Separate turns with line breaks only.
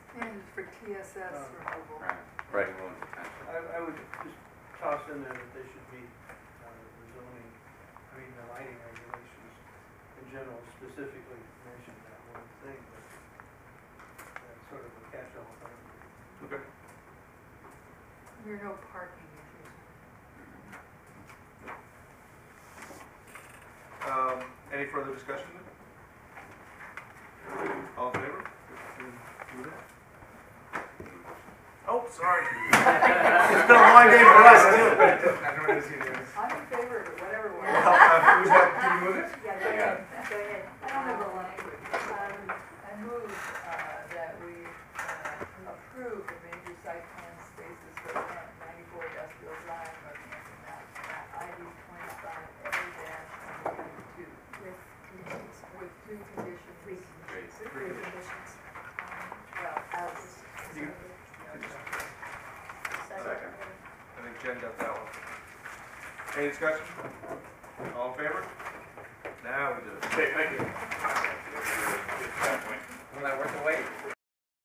TSS
Um,
removal.
Right,
Right.
everyone potential.
I, I would just toss in there that they should be, uh, the zoning, I mean, the lighting regulations in general specifically mention that one thing, but that's sort of a catch-all thing.
Okay.
There are no parking issues.
Um, any further discussion? All in favor? Do that. Oh, sorry. It's been a long day for us too. I don't want to see this.
I'm in favor of it, whatever way.
Well, uh, who's that, do you move it?
Yeah, go ahead, go ahead.
I don't have a language. Um, I move uh, that we uh, approve the major site plan spaces for plant ninety-four industrial drive, Northampton, Mass. ID twenty-five A twenty-two,
With conditions,
with two conditions.
three
Great.
conditions, three conditions.
Well,
Um, out.
You-
Second.
I think Jen got that one. Any discussion? All in favor? Now we do it.
Thank you.